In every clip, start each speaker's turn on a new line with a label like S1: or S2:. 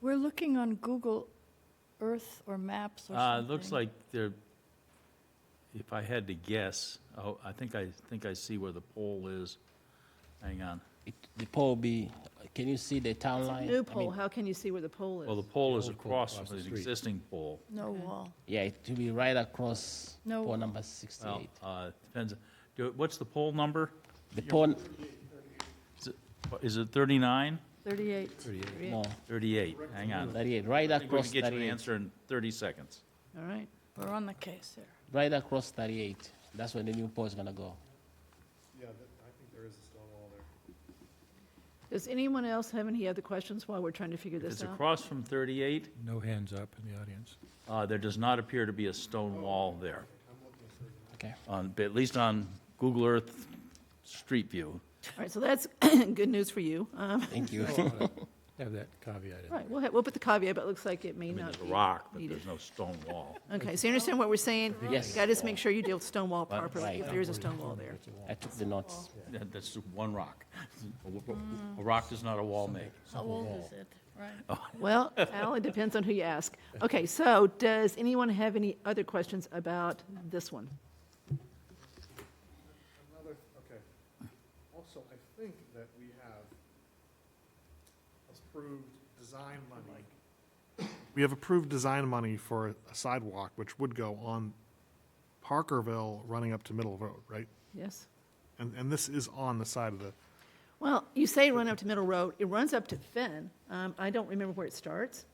S1: We're looking on Google Earth or maps or
S2: Uh,
S1: something.
S2: it looks like there, if I had to guess, oh, I think I, think I see where the pole is. Hang on.
S3: It- The pole be, can you see the town
S4: It's a
S3: line? I
S4: new
S3: mean,
S4: pole, how can you see where the pole
S2: Well, Oh, the
S4: is?
S2: pole is
S5: The old pole
S2: across
S5: across
S2: from
S5: the
S2: the
S5: street.
S2: existing pole.
S1: No wall.
S3: Yeah, it will be right across
S1: No.
S3: pole number
S2: Well,
S3: 68.
S2: uh, depends, do- what's the pole number?
S3: The pole,
S2: Is it- Is it 39?
S1: 38.
S3: no,
S2: 38, hang on.
S3: 38, right
S2: I think we
S3: across
S2: can get you an
S3: 38.
S2: answer in 30 seconds.
S4: All right,
S1: We're on the case here.
S3: Right across 38. That's where the new pole is gonna go.
S4: does anyone else have any other questions while we're trying to figure
S2: If it's
S4: this out?
S2: across from 38,
S5: No hands up in the audience.
S2: uh, there does not appear to be a stone wall there,
S3: Okay.
S2: on, at least on Google Earth Street View.
S4: All right, so that's good news for you. Um,
S3: Thank you.
S5: Have that caveat in.
S4: Right, we'll, ha- we'll put the caveat, but it looks like it may
S2: I mean,
S4: not
S2: there's a
S4: be.
S2: rock, but
S4: needed.
S2: there's no stone wall.
S4: Okay, so you understand what we're saying?
S3: Yes.
S4: Gotta just make sure you deal with stone wall
S2: Well,
S4: properly, if
S3: right.
S4: there is a stone wall there.
S3: I took the notes.
S2: That- That's one rock. A w- A rock does not a wall make.
S1: How old is it? Right.
S4: Well, Al, it depends on who you ask. Okay, so does anyone have any other questions about this one?
S6: Another, okay. Also, I think that we have approved design money. We have approved design money for a sidewalk, which would go on Parkerville running up to Middle Road, right?
S4: Yes?
S6: And, and this is on the side of the,
S4: Well, you say run up to Middle Road, it runs up to Finn. Um, I don't remember where it starts.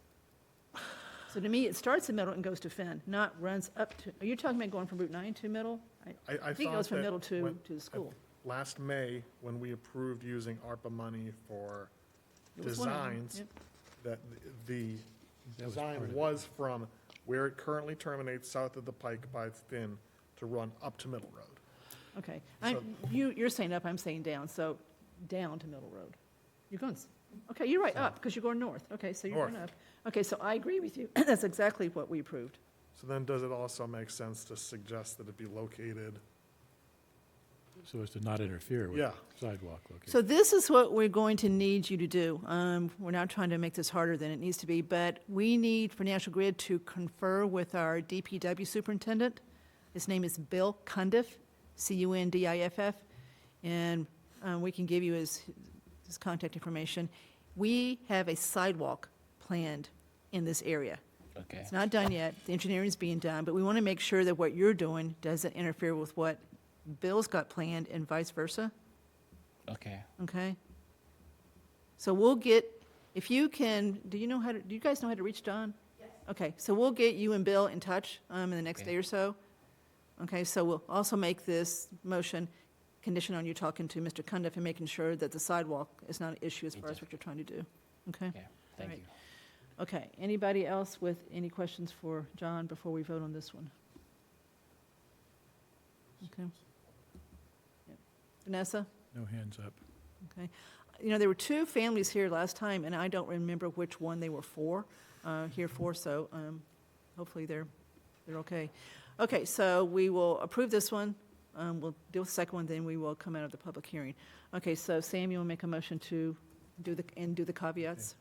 S4: So to me, it starts in Middle and goes to Finn, not runs up to, are you talking about going from Route 9 to Middle?
S6: I, I thought
S4: I think it goes from
S6: that
S4: Middle to,
S6: when-
S4: to the school.
S6: Last May, when we approved using ARPA money for
S4: It was one of them.
S6: designs,
S4: Yep.
S6: that the
S5: That was part
S6: design
S5: of it.
S6: was from where it currently terminates south of the Pike by Finn to run up to Middle Road.
S4: Okay. I,
S6: So-
S4: you, you're saying up, I'm saying down, so down to Middle Road. You're going, s- okay, you're right, up, because you're going north. Okay, so you're going up. Okay, so I agree with you. That's exactly what we approved.
S6: So then does it also make sense to suggest that it be located?
S5: So as to not interfere with
S6: Yeah.
S5: sidewalk location.
S4: So this is what we're going to need you to do. Um, We're not trying to make this harder than it needs to be, but we need Financial Grid to confer with our DPW superintendent. His name is Bill Cundiff, C-U-N-D-I-F-F, and um, we can give you his, his contact information. We have a sidewalk planned in this area.
S3: Okay.
S4: It's not done yet, the engineering's being done, but we want to make sure that what you're doing doesn't interfere with what Bill's got planned and vice versa.
S3: Okay.
S4: Okay. So we'll get, if you can, do you know how to, do you guys know how to reach Don? Yes. Okay, so we'll get you and Bill in touch um, in the next
S3: Okay.
S4: day or so. Okay, so we'll also make this motion condition on you talking to Mr. Cundiff and making sure that the sidewalk is not an issue as far as what you're trying to do. Okay?
S3: Yeah. Thank
S4: right.
S3: you.
S4: Okay, anybody else with any questions for John before we vote on this one? Okay. Yep. Vanessa?
S5: No hands up.
S4: You know, there were two families here last time, and I don't remember which one they were for, uh, here for, so um, hopefully they're, they're okay. Okay, so we will approve this one, um, we'll deal with the second one, then we will come out of the public hearing. Okay, so Sam, you will make a motion to do the, and do the caveats?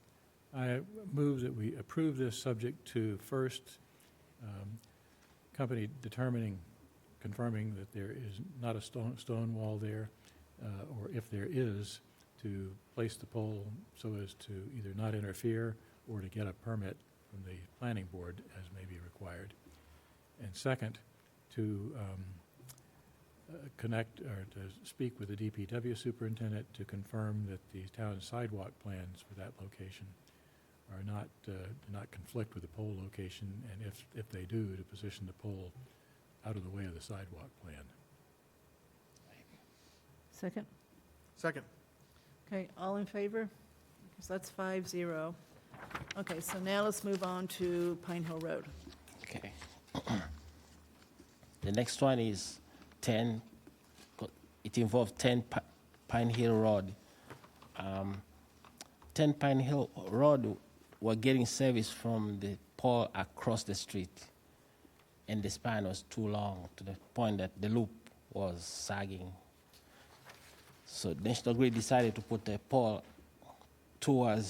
S5: I move that we approve this subject to first, um, company determining, confirming that there is not a stone, stone wall there, uh, or if there is, to place the pole so as to either not interfere or to get a permit from the planning board as may be required. And second, to, um, uh, connect or to speak with the DPW superintendent to confirm that the town sidewalk plans for that location are not, uh, do not conflict with the pole location, and if, if they do, to position the pole out of the way of the sidewalk plan.
S4: Second?
S6: Second,
S4: Okay, all in favor? So that's five zero. Okay, so now let's move on to Pine Hill Road.
S3: Okay. The next one is 10, co- it involves 10 Pi- Pine Hill Road. Um, 10 Pine Hill Road, we're getting service from the pole across the street, and the span was too long to the point that the loop was sagging. So National Grid decided to put a pole towards